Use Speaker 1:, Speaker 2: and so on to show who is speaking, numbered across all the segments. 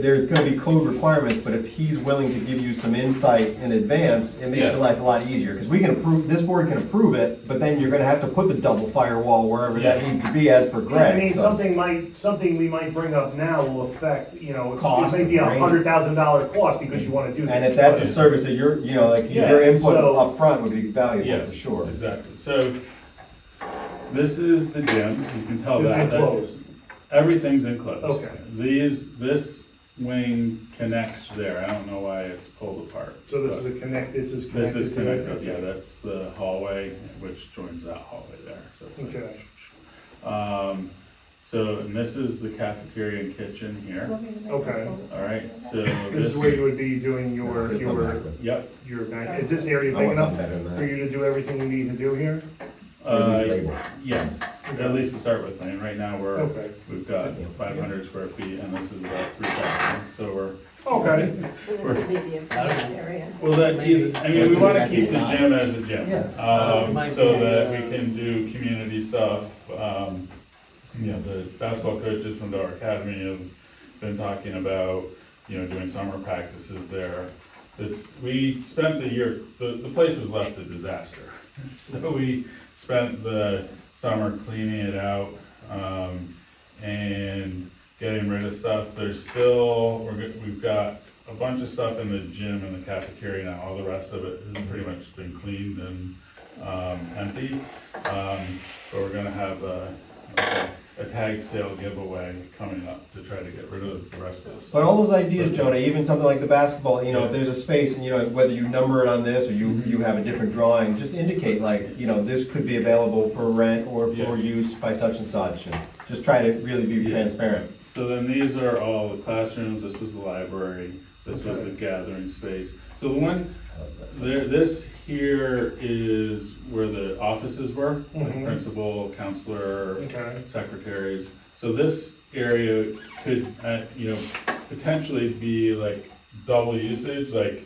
Speaker 1: There's gonna be code requirements, but if he's willing to give you some insight in advance, it makes
Speaker 2: Yeah.
Speaker 1: your life a lot easier. Because we can approve, this board can approve it, but then you're gonna have to put the double firewall wherever that
Speaker 2: Yeah.
Speaker 1: needs to be as per
Speaker 3: I mean,
Speaker 1: Greg, so.
Speaker 3: something might, something we might bring up now will affect, you know, it
Speaker 1: Cost,
Speaker 3: may be a
Speaker 1: right?
Speaker 3: hundred thousand dollar cost because you wanna do that.
Speaker 1: And if that's a service that you're, you know, like, your
Speaker 3: Yeah,
Speaker 1: input
Speaker 3: so-
Speaker 1: up front would be valuable,
Speaker 2: Yes,
Speaker 1: for sure.
Speaker 2: Exactly. So this is the gym. You can tell
Speaker 3: This
Speaker 1: Oh,
Speaker 3: is
Speaker 2: that. That's-
Speaker 3: enclosed.
Speaker 2: Everything's enclosed.
Speaker 3: Okay.
Speaker 2: These, this wing connects there. I don't know why it's pulled apart.
Speaker 3: So this
Speaker 2: but
Speaker 3: is a connect, this is
Speaker 2: This
Speaker 3: connected.
Speaker 2: is
Speaker 3: to it?
Speaker 2: connected. Yeah, that's the hallway which joins that hallway there. So it's like-
Speaker 3: Okay.
Speaker 2: Um, so and this is the cafeteria and kitchen here.
Speaker 3: Okay.
Speaker 2: All right. So
Speaker 3: This is where you would be doing your, your,
Speaker 2: Yep.
Speaker 3: your, mag- is this area
Speaker 1: I
Speaker 3: big
Speaker 1: want something
Speaker 3: enough
Speaker 1: better than
Speaker 3: for
Speaker 1: that.
Speaker 3: you to do everything you need to do here?
Speaker 1: Or
Speaker 2: Uh,
Speaker 1: at least label.
Speaker 2: Yes,
Speaker 3: Okay.
Speaker 2: at least to start with, and right now we're,
Speaker 3: Okay.
Speaker 2: we've got five hundred square feet and this is about three thousand, so we're.
Speaker 3: Okay,
Speaker 4: This would be the important area.
Speaker 2: Well, that, either- I mean, we
Speaker 1: What's in
Speaker 2: wanna
Speaker 1: that
Speaker 2: keep the
Speaker 1: design?
Speaker 2: gym as a gym.
Speaker 1: Yeah.
Speaker 2: Um,
Speaker 5: Might
Speaker 2: so
Speaker 5: be,
Speaker 2: that we
Speaker 5: uh,
Speaker 2: can do community stuff, um, you know, the basketball coaches from our academy have been talking about, you know, doing summer practices there. It's, we spent the year, the, the place was left a disaster. So we spent the summer cleaning it out, um, and getting rid of stuff. There's still, we're, go- we've got a bunch of stuff in the gym and the cafeteria now, all the rest of it has pretty much been cleaned and, um, empty. Um, but we're gonna have a, a tag sale giveaway coming up to try to get rid of the rest of the
Speaker 1: But
Speaker 2: stuff.
Speaker 1: all those ideas, Jonah, even something like the basketball, you know, if there's a space and, you know, whether you number it on this or you, you have a different drawing, just indicate like, you know, this could be available for rent or
Speaker 2: Yeah.
Speaker 1: for use by such and such. and Just try to really be
Speaker 2: Yeah.
Speaker 1: transparent.
Speaker 2: So then these are all the classrooms, this was the library, this was the gathering space. So the one, there, this here is where the offices were, like
Speaker 3: Mhm.
Speaker 2: principal, counselor,
Speaker 3: okay,
Speaker 2: secretaries. So this area could, uh, you know, potentially be like double usage, like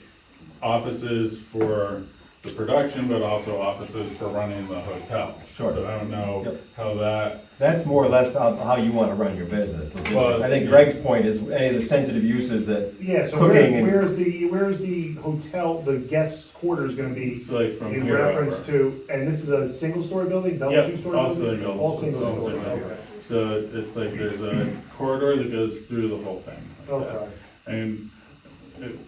Speaker 2: offices for the production, but also offices for running the hotel.
Speaker 1: Sure.
Speaker 2: So I don't know
Speaker 1: Yep.
Speaker 2: how that,
Speaker 1: That's more or less how, how you wanna run your business, logistics.
Speaker 2: Well,
Speaker 1: I think
Speaker 2: yeah.
Speaker 1: Greg's point is any of the sensitive uses that,
Speaker 3: yeah, so
Speaker 1: Cooking
Speaker 3: where,
Speaker 1: and-
Speaker 3: where's the, where's the hotel, the guest quarters gonna be?
Speaker 2: so like from
Speaker 3: In
Speaker 2: here
Speaker 3: reference
Speaker 2: over.
Speaker 3: to, and this is a single-story building, double
Speaker 2: Yep,
Speaker 3: two-story
Speaker 2: all
Speaker 3: building?
Speaker 2: single,
Speaker 3: All
Speaker 2: it's
Speaker 3: single
Speaker 2: all
Speaker 3: story,
Speaker 2: single.
Speaker 3: okay.
Speaker 2: So it's like there's a corridor that goes through the whole thing. like that.
Speaker 3: Okay,
Speaker 2: And, it-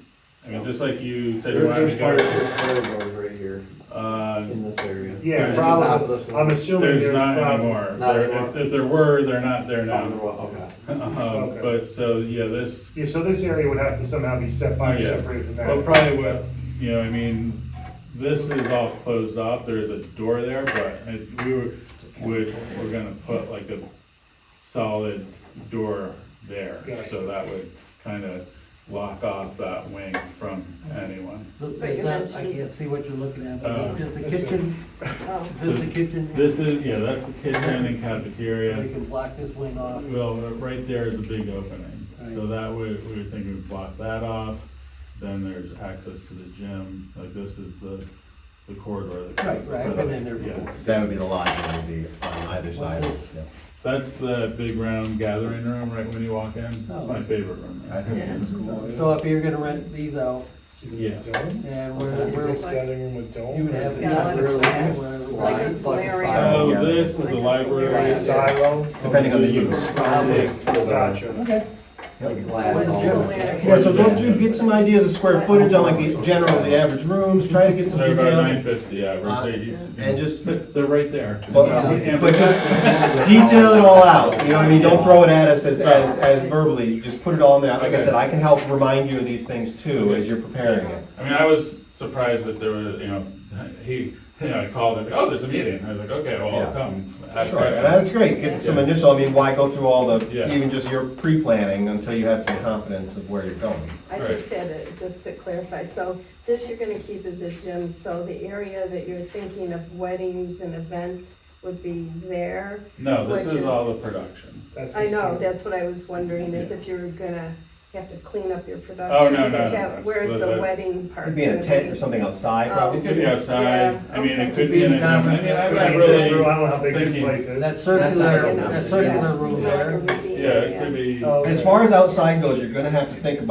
Speaker 2: I mean, just like you said, you
Speaker 5: There's,
Speaker 2: wanted
Speaker 5: there's
Speaker 2: to
Speaker 5: fire,
Speaker 2: go,
Speaker 5: there's fire doors right here
Speaker 2: uh,
Speaker 5: in this area.
Speaker 3: yeah,
Speaker 2: There's just
Speaker 3: probably,
Speaker 5: opposite.
Speaker 3: I'm assuming there's
Speaker 2: There's not
Speaker 3: probably.
Speaker 2: anymore. If
Speaker 5: Not
Speaker 2: there-
Speaker 5: anymore.
Speaker 2: If, if there were, they're not there
Speaker 5: Oh,
Speaker 2: now.
Speaker 5: they're all- okay.
Speaker 2: Um,
Speaker 3: Okay.
Speaker 2: but so, yeah, this,
Speaker 3: Yeah, so this area would have to somehow be set by,
Speaker 2: Yeah.
Speaker 3: separated from
Speaker 2: well,
Speaker 3: that.
Speaker 2: probably what, you know, I mean, this is all closed off, there is a door there, but it- we were, would, we're gonna put like a solid door there, so that would kind of lock off that wing from anyone.
Speaker 5: Look,
Speaker 4: But you're
Speaker 5: is that- I
Speaker 4: mentioning-
Speaker 5: can't see what you're looking at,
Speaker 2: Uh,
Speaker 5: but is the kitchen,
Speaker 4: Oh,
Speaker 5: is this the kitchen?
Speaker 2: This is, yeah, that's the kitchen and
Speaker 5: So
Speaker 2: cafeteria.
Speaker 5: we can block this wing off.
Speaker 2: Well, right there is a big opening, so
Speaker 5: Right.
Speaker 2: that way, we were thinking we'd block that off, then there's access to the gym, like this is the, the corridor that.
Speaker 5: Right, right, I've been in there
Speaker 2: Yeah.
Speaker 5: before.
Speaker 1: that would be the logic, would be on either side. Yeah.
Speaker 2: That's the big round gathering room, right when you walk in, it's
Speaker 5: Oh.
Speaker 2: my favorite room.
Speaker 1: I think it's-
Speaker 5: So if you're gonna rent these out,
Speaker 3: Is
Speaker 2: Yeah.
Speaker 3: it a dome?
Speaker 5: and
Speaker 4: Okay.
Speaker 5: we're,
Speaker 4: Is
Speaker 5: we're,
Speaker 4: this-
Speaker 3: Gathering room with dome?
Speaker 5: you would have
Speaker 4: It's
Speaker 5: enough
Speaker 4: got a
Speaker 5: room.
Speaker 4: glass, like a
Speaker 5: where-
Speaker 4: solarium.
Speaker 2: Oh,
Speaker 1: Yeah.
Speaker 2: this is the
Speaker 4: Like a
Speaker 2: library.
Speaker 4: square.
Speaker 3: Silo?
Speaker 1: Depending on the use.
Speaker 3: Gotcha.
Speaker 5: Okay.
Speaker 4: What's the layer?
Speaker 1: Yeah, so go through, get some ideas of square footage on like the general, the average rooms, try to get some
Speaker 2: They're about nine
Speaker 1: details.
Speaker 2: fifty, yeah,
Speaker 1: Uh,
Speaker 2: we're, they-
Speaker 1: And just,
Speaker 2: they're right there.
Speaker 1: But, but just detail it all out, you know what I mean, don't throw it at us as, as, as verbally, just put it all in there. Like I said, I can help remind you of these things too, as you're preparing it.
Speaker 2: I mean, I was surprised that there was, you know, he, you know, I called him, oh, there's a meeting, I was like, okay, well,
Speaker 1: Yeah.
Speaker 2: I'll come.
Speaker 1: Sure, and that's great, get some initial, I mean, why go through all the,
Speaker 2: Yeah.
Speaker 1: even just your pre-planning until you have some confidence of where you're going.
Speaker 4: I just had it, just to clarify, so this you're gonna keep as a gym, so the area that you're thinking of weddings and events would be there.
Speaker 2: No, this
Speaker 4: Which
Speaker 2: is
Speaker 4: is-
Speaker 2: all the production.
Speaker 3: That's
Speaker 4: I know,
Speaker 3: what's-
Speaker 4: that's what I was wondering, is if you were gonna you have to clean up your
Speaker 2: Oh, no,
Speaker 4: production
Speaker 2: no, no,
Speaker 4: to have,
Speaker 2: that's-
Speaker 4: where's
Speaker 2: that-
Speaker 4: the
Speaker 2: that-
Speaker 4: wedding part?
Speaker 1: It'd be in a
Speaker 4: gonna
Speaker 1: tent
Speaker 4: be?
Speaker 1: or something outside,
Speaker 4: Oh.
Speaker 1: probably.
Speaker 2: It could be outside, I mean, it could be in a, I mean, I'm not
Speaker 3: I mean, this room,
Speaker 2: really,
Speaker 3: I don't know how big this
Speaker 2: thinking-
Speaker 3: place is.
Speaker 5: That
Speaker 4: Yeah,
Speaker 5: circular,
Speaker 4: no,
Speaker 5: that
Speaker 4: yeah,
Speaker 5: circular
Speaker 4: it's
Speaker 5: room
Speaker 4: not
Speaker 5: there.
Speaker 4: gonna be
Speaker 2: yeah, it could be.
Speaker 3: Oh,
Speaker 1: As
Speaker 3: yeah.
Speaker 1: far as outside goes, you're gonna have to think about